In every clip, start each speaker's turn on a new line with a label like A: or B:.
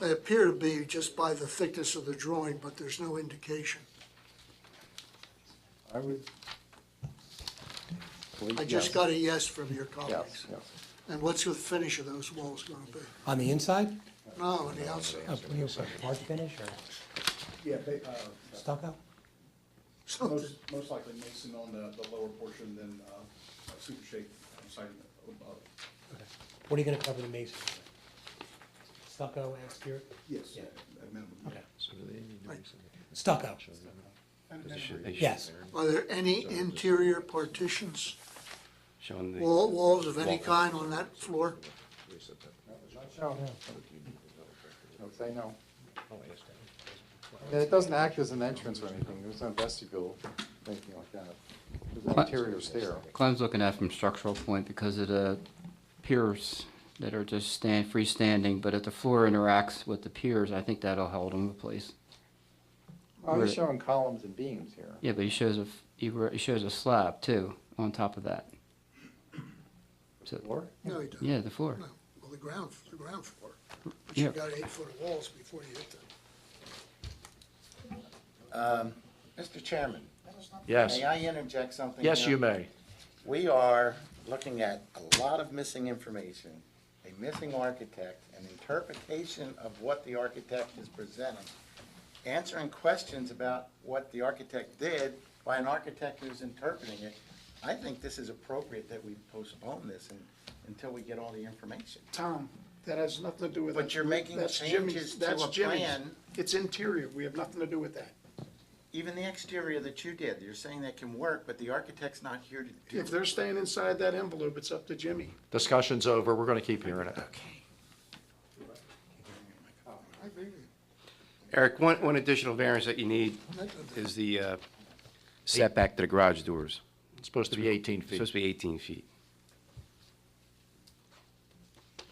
A: They appear to be just by the thickness of the drawing, but there's no indication.
B: I would.
A: I
B: Yes,
A: just got a yes from your
B: Yes,
A: colleagues.
B: yes.
A: And what's the finish of those walls gonna be?
C: On the inside?
A: No, on the outside,
C: Oh, what do you say, hard finish or
D: Yeah, they, uh,
C: stucco?
A: something,
D: most, most likely mason on the, the lower portion than, uh, uh, super shake uh, siding above.
C: What are you gonna cover the masonry with? Stucco, exterior?
D: Yes,
C: Yeah.
D: at minimum.
C: Okay.
A: Right.
C: Stucco.
D: And- and-
C: Yes.
A: Are there any interior partitions,
E: Showing the.
A: wall, walls of any kind on that floor?
B: no. No, Say no. And it doesn't act as an entrance or anything, there's no vestibule, or anything like that. There's an
E: What?
B: interior stair.
E: Clem's looking at it from structural point because of the piers that are just stand, freestanding, but if the floor interacts with the piers, I think that'll hold them in place.
B: Oh,
E: Where-
B: he's showing columns and beams here.
E: Yeah, but he shows a, f- he, re- he shows a slab too, on top of that. So,
B: Floor?
A: No, you don't.
E: yeah, the floor.
A: No, well, the ground, the ground floor. But
E: Yeah.
A: you've got eight-foot walls before you hit the
F: Mr. Chairman,
G: Yes,
F: may I interject something?
G: yes,
F: here?
G: you may.
F: We are looking at a lot of missing information, a missing architect, an interpretation of what the architect is presenting, answering questions about what the architect did by an architect who's interpreting it. I think this is appropriate that we postpone this and- until we get all the information.
H: Tom, that has nothing to do with.
F: But you're making
H: That's
F: changes
H: Jimmy's-
F: to
H: that's
F: a
H: Jimmy's.
F: plan.
H: It's interior, we have nothing to do with that.
F: Even the exterior that you did, you're saying that can work, but the architect's not here to do
H: If they're staying inside that envelope, it's up to Jimmy.
G: Discussion's over, we're gonna keep hearing it.
E: Eric, one, one additional variance that you need is the uh, setback to the garage doors.
G: It's supposed to be 18
E: It's supposed
G: feet.
E: to be 18 feet.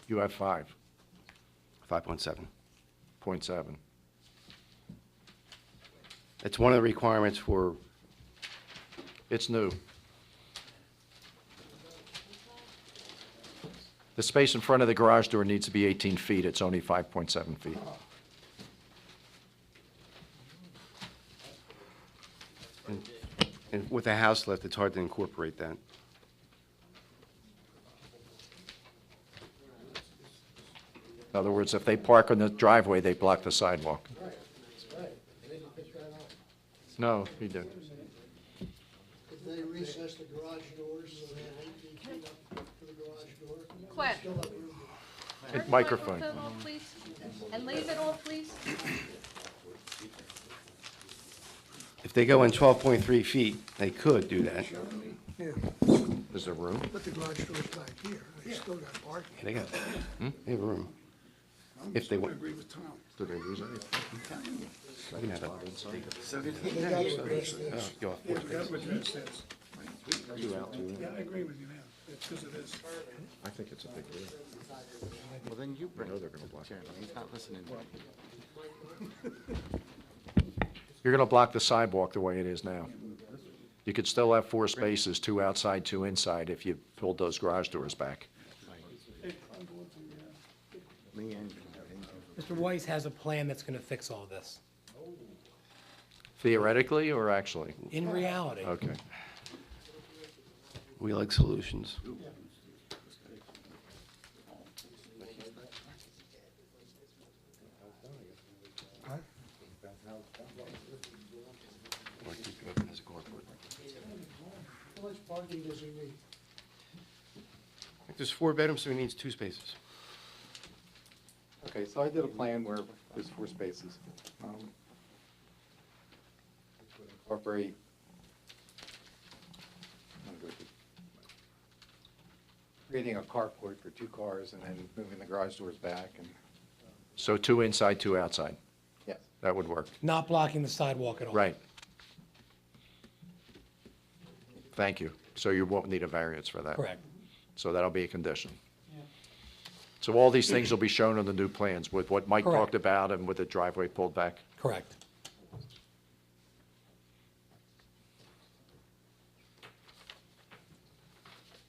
G: You have five,
E: 5.7.
G: point seven.
E: It's one of the requirements for,
G: It's new. The space in front of the garage door needs to be 18 feet, it's only 5.7 feet.
E: and with a house lift, it's hard to incorporate that.
G: In other words, if they park on the driveway, they block the sidewalk. No, he did.
A: Could they recess the garage doors so they have eighteen feet up to the garage door?
I: Quinn.
A: Still have room.
I: Turn the
G: microphone.
I: off, please, and leave it off, please.
E: If they go in 12.3 feet, they could do that.
A: Yeah,
G: Is there room?
A: but the garage door's back here, they still got parking.
E: They got, they have room.
H: I'm
E: If they
H: gonna
E: want-
H: agree with Tom.
E: They can have a-
F: it. So did he?
E: go
H: Yeah, that's what Jim says. Yeah, I agree with you now, it's because it is.
B: I think it's a big room.
F: Well, then you bring it to the chairman, he's not listening to you.
G: You're going to block the sidewalk the way it is now. You could still have four spaces, two outside, two inside, if you pulled those garage doors back.
F: Me and
C: Mr. Weiss has a plan that's gonna fix all this.
G: Theoretically or actually?
C: In reality,
G: Okay.
E: We like solutions. Or keep it open as a carport.
A: How much parking does he need?
E: I think There's four bedrooms, so he needs two spaces.
B: Okay, so I did a plan where there's four spaces. um, which would Incorporate. I'm gonna go through- Creating a carport for two cars and then moving the garage doors back and,
G: So two inside, two outside.
B: yes.
G: That would work.
C: not blocking the sidewalk at all.
G: Right. Thank you. So you won't need a variance for that.
C: Correct.
G: So that'll be a condition. So all these things will be shown on the new plans with what Mike
C: Correct.
G: talked about and with the driveway pulled back.
C: Correct.